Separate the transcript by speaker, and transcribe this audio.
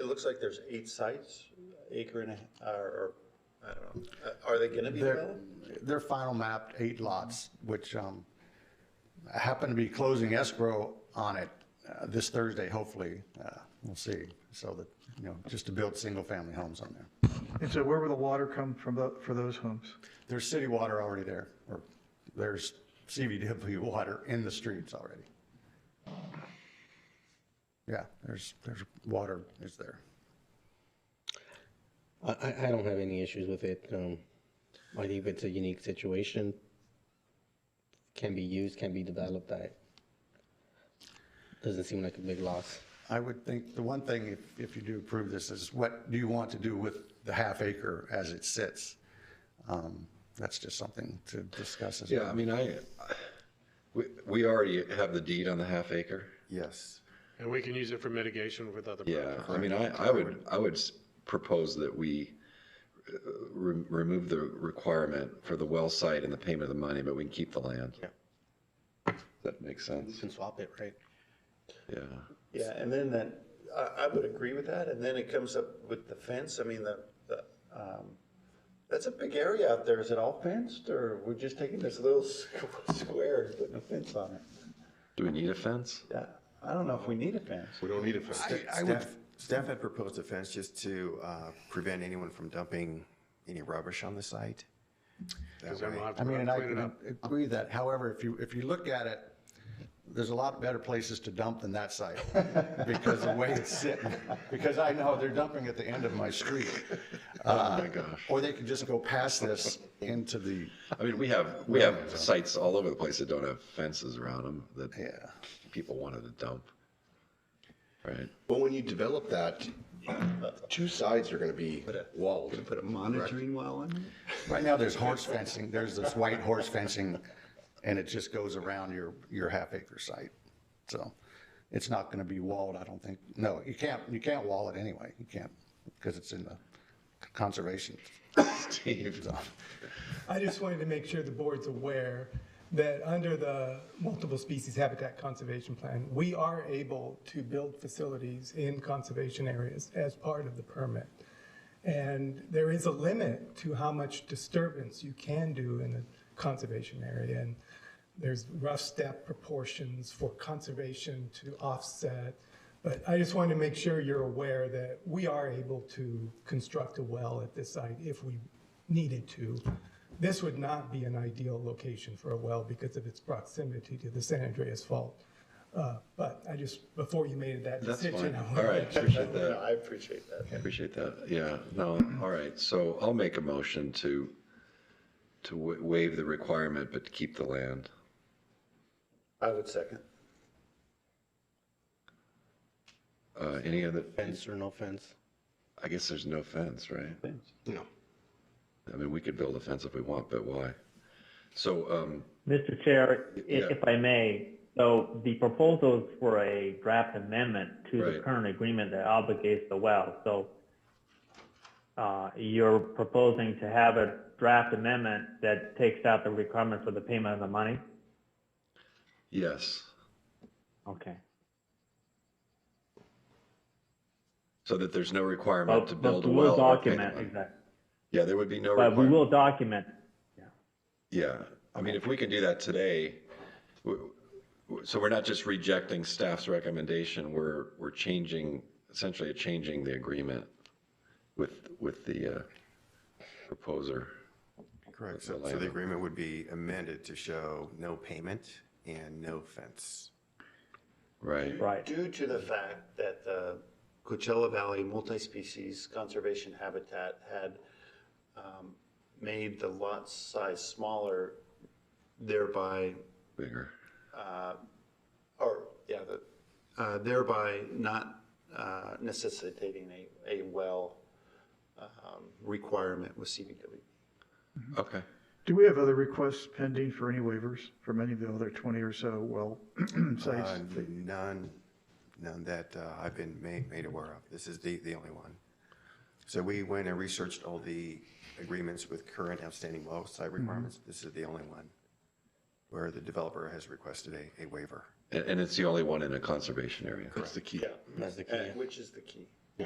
Speaker 1: looks like there's eight sites, acre and a, or, or, I don't know, Uh, are they gonna be
Speaker 2: They're,
Speaker 1: developed?
Speaker 2: they're final mapped eight lots, which um, I happen to be closing escrow on it uh, this Thursday, hopefully. Uh, We'll see. So that, you know, just to build single-family homes on there.
Speaker 3: And so where will the water come from tho- for those homes?
Speaker 2: There's city water already there, or there's CVW water in the streets already. Yeah, there's, there's water is there.
Speaker 4: I, I- I don't have any issues with it. Um, I think it's a unique situation. Can be used, can be developed. I, doesn't seem like a big loss.
Speaker 2: I would think, the one thing, if, if you do approve this, is what do you want to do with the half acre as it sits? Um, That's just something to discuss as well.
Speaker 5: Yeah, I mean, I, we, we already have the deed on the half acre.
Speaker 6: Yes.
Speaker 7: And we can use it for mitigation with other
Speaker 5: Yeah,
Speaker 7: projects.
Speaker 5: I mean, I, I would, I would s- propose that we uh, re- remove the requirement for the well site and the payment of the money, but we can keep the land.
Speaker 4: Yeah.
Speaker 5: That makes
Speaker 4: You
Speaker 5: sense,
Speaker 4: can swap it, right?
Speaker 5: yeah.
Speaker 1: Yeah, and then that, I, I would agree with that, and then it comes up with the fence, I mean, the, the, um, that's a big area out there, is it all fenced, or we're just taking this little s- square and putting a fence on it?
Speaker 5: Do we need a fence?
Speaker 1: Yeah, I don't know if we need a fence.
Speaker 7: We don't need a fence.
Speaker 6: Staff, staff had proposed a fence just to uh, prevent anyone from dumping any rubbish on the site. That
Speaker 7: Because then we'll
Speaker 6: way-
Speaker 7: have to
Speaker 2: I mean, and I
Speaker 7: clean it
Speaker 2: can
Speaker 7: up.
Speaker 2: agree that, however, if you, if you look at it, there's a lot better places to dump than that site, because the way it's sitting, because I know they're dumping at the end of my street. Uh,
Speaker 5: Oh my gosh.
Speaker 2: Or they could just go past this into the,
Speaker 5: I mean, we have, we have sites all over the place that don't have fences around them that
Speaker 2: yeah.
Speaker 5: people wanted to dump. Right?
Speaker 8: But when you develop that, two sides are gonna be walled.
Speaker 1: Put a monitoring well on it?
Speaker 2: Right now, there's horse fencing, there's this white horse fencing, and it just goes around your, your half acre site. So it's not gonna be walled, I don't think. No, you can't, you can't wall it anyway. You can't, because it's in the conservation
Speaker 5: Steve,
Speaker 2: zone.
Speaker 9: I just wanted to make sure the board's aware that under the multiple species habitat conservation plan, we are able to build facilities in conservation areas as part of the permit. And there is a limit to how much disturbance you can do in a conservation area. And there's rough step proportions for conservation to offset. But I just wanted to make sure you're aware that we are able to construct a well at this site if we needed to. This would not be an ideal location for a well because of its proximity to the San Andreas Fault. Uh, But I just, before you made that
Speaker 5: that's fine.
Speaker 9: decision. I wanted
Speaker 5: All
Speaker 9: to
Speaker 5: right,
Speaker 9: make sure
Speaker 5: appreciate that.
Speaker 1: I appreciate that.
Speaker 5: Appreciate that. Yeah, no, all right. So I'll make a motion to, to wa- waive the requirement, but keep the land.
Speaker 1: I would second.
Speaker 5: Uh, any other,
Speaker 4: Fence or no fence.
Speaker 5: I guess there's no fence, right?
Speaker 8: No.
Speaker 5: I mean, we could build a fence if we want, but why? So, um,
Speaker 10: Mr. Chair, i-
Speaker 5: Yeah.
Speaker 10: if I may, so the proposals for a draft amendment to the
Speaker 5: Right.
Speaker 10: current agreement that obligates the well. So uh, you're proposing to have a draft amendment that takes out the requirement for the payment of the money?
Speaker 5: yes,
Speaker 10: Okay.
Speaker 5: so that there's no requirement to
Speaker 10: But
Speaker 5: build
Speaker 10: but
Speaker 5: a
Speaker 10: we
Speaker 5: well.
Speaker 10: will
Speaker 5: or pay the
Speaker 10: document,
Speaker 5: money.
Speaker 10: exactly.
Speaker 5: Yeah, there would be no
Speaker 10: But we
Speaker 5: requirement.
Speaker 10: will document
Speaker 5: Yeah, I mean, if we can do that today, w- w- so we're not just rejecting staff's recommendation, we're, we're changing, essentially changing the agreement with, with the uh, proposer.
Speaker 6: Correct. So so the agreement would be amended to show no payment and no fence.
Speaker 5: Right,
Speaker 10: Right.
Speaker 1: Due to the fact that the Coachella Valley Multi-Species Conservation Habitat had um, made the lot size smaller, thereby,
Speaker 5: bigger.
Speaker 1: or, yeah, the, uh, thereby not uh, necessitating a, a well um, requirement with CBW.
Speaker 8: Mm-hmm.
Speaker 5: Okay,
Speaker 3: Do we have other requests pending for any waivers from any of the other 20 or so well
Speaker 6: Uh,
Speaker 3: sites?
Speaker 6: None, none that uh, I've been made, made aware of. This is the, the only one. So we went and researched all the agreements with current outstanding well site requirements. This is the only one where the developer has requested a, a waiver.
Speaker 5: and, and it's the only one in a conservation area.
Speaker 8: That's the key.
Speaker 4: That's the key.
Speaker 1: Which is the key.